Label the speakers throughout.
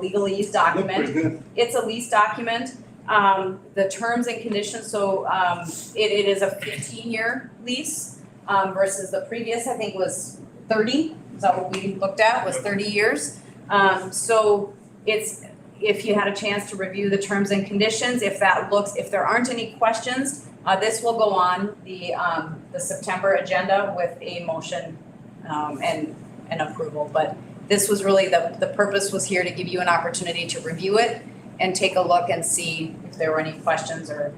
Speaker 1: legal lease
Speaker 2: Look pretty
Speaker 1: document.
Speaker 2: good.
Speaker 1: It's a lease document. Um, the terms and conditions, so, um, it, it is a fifteen-year lease, um, versus the previous, I think, was thirty. Is that what we looked at, was thirty years? Um, so it's, if you had a chance to review the terms and conditions, if that looks, if there aren't any questions, uh, this will go on the, um, the September agenda with a motion, um, and, and approval. But this was really, the, the purpose was here to give you an opportunity to review it and take a look and see if there were any questions or,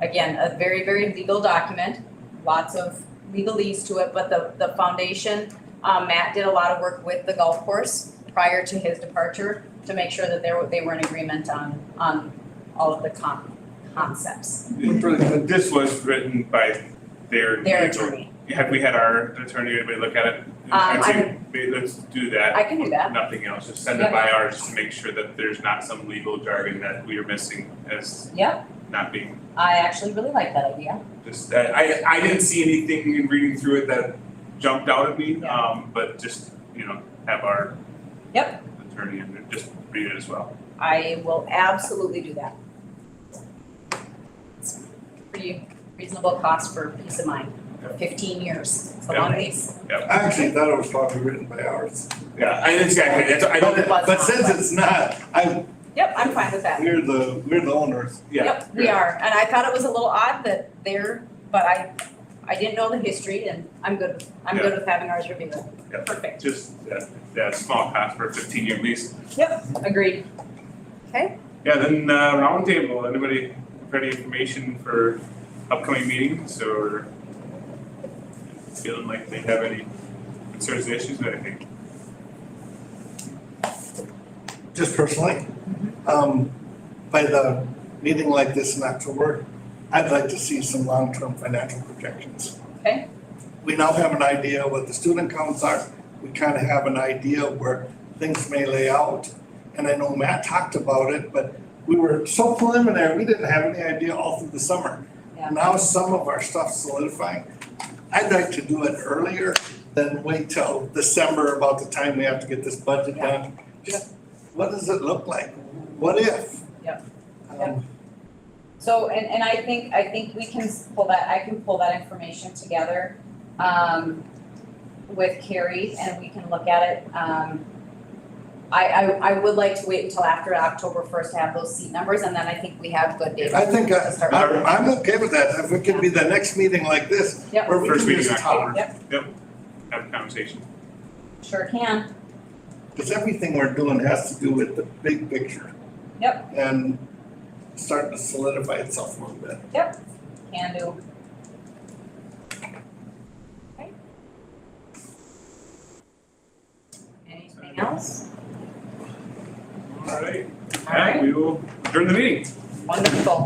Speaker 1: again, a very, very legal document, lots of legalese to it, but the, the foundation, um, Matt did a lot of work with the golf course prior to his departure to make sure that there, were- they were in agreement on, on all of the con- concepts,
Speaker 2: Look pretty good.
Speaker 3: This was written by their.
Speaker 1: their attorney. Uh,
Speaker 3: Have we had our attorney, anybody look at it?
Speaker 1: I
Speaker 3: I'd say, ba- let's do that.
Speaker 1: I can do that.
Speaker 3: Nothing else, just send it by ours to make sure that there's not some legal jargon that we are missing as
Speaker 1: Yep,
Speaker 3: not being.
Speaker 1: I actually really like that idea.
Speaker 3: Just, that- I, I didn't see anything in reading through it that jumped out at me,
Speaker 1: Yeah.
Speaker 3: um, but just, you know, have our.
Speaker 1: Yep.
Speaker 3: Attorney and just read it as well.
Speaker 1: I will absolutely do that. It's Pretty reasonable cost for peace of mind, fifteen years, it's a long lease.
Speaker 2: I actually thought it was probably written by ours.
Speaker 3: Yeah, I, exactly, that's, I
Speaker 1: don't- But it's
Speaker 2: But
Speaker 1: not.
Speaker 2: since it's not, I,
Speaker 1: Yep, I'm fine with that.
Speaker 2: we're the, we're the owners.
Speaker 1: Yep, we are, and I thought it was a little odd that they're, but I, I didn't know the history and I'm good, with- I'm good with having ours reviewed.
Speaker 3: Yeah.
Speaker 1: Perfect,
Speaker 3: Just that, that small cost for a fifteen year lease.
Speaker 1: agreed. Okay,
Speaker 3: Yeah, then uh roundtable, anybody have any information for upcoming meetings or feeling like they have any concerns, issues, or anything?
Speaker 2: just personally,
Speaker 1: Mm-hmm.
Speaker 2: um, by the meeting like this in October, I'd like to see some long-term financial projections.
Speaker 1: Okay.
Speaker 2: We now have an idea what the student counts are, we kind of have an idea where things may lay out. And I know Matt talked about it, but we were so preliminary, we didn't have any idea all through the summer.
Speaker 1: Yeah.
Speaker 2: Now some of our stuff's solidifying. I'd like to do it earlier than wait till December about the time we have to get this budget
Speaker 1: Yeah.
Speaker 2: done. Just, what does it look like? What if?
Speaker 1: Yep.
Speaker 2: Um,
Speaker 1: Yep. so, and, and I think, I think we can s- pull that, I can pull that information together, um, with Carrie and we can look at it, um. I, I, I would like to wait until after October first to have those seat numbers and then I think we have good data.
Speaker 2: I think uh,
Speaker 1: to
Speaker 2: I,
Speaker 1: start with.
Speaker 2: I'm, I'm okay with that. If it could be the next meeting like this,
Speaker 1: Yep.
Speaker 2: where we
Speaker 3: First
Speaker 2: can
Speaker 3: meeting in
Speaker 2: just
Speaker 3: October.
Speaker 2: talk.
Speaker 1: Yep,
Speaker 3: Have a conversation.
Speaker 1: sure can,
Speaker 2: Because everything we're doing has to do with the big picture.
Speaker 1: Yep.
Speaker 2: And starting to solidify itself a little bit.
Speaker 1: can do. Okay. Anything else?
Speaker 3: All right,
Speaker 1: All right,
Speaker 3: we will adjourn the meeting.
Speaker 1: wonderful.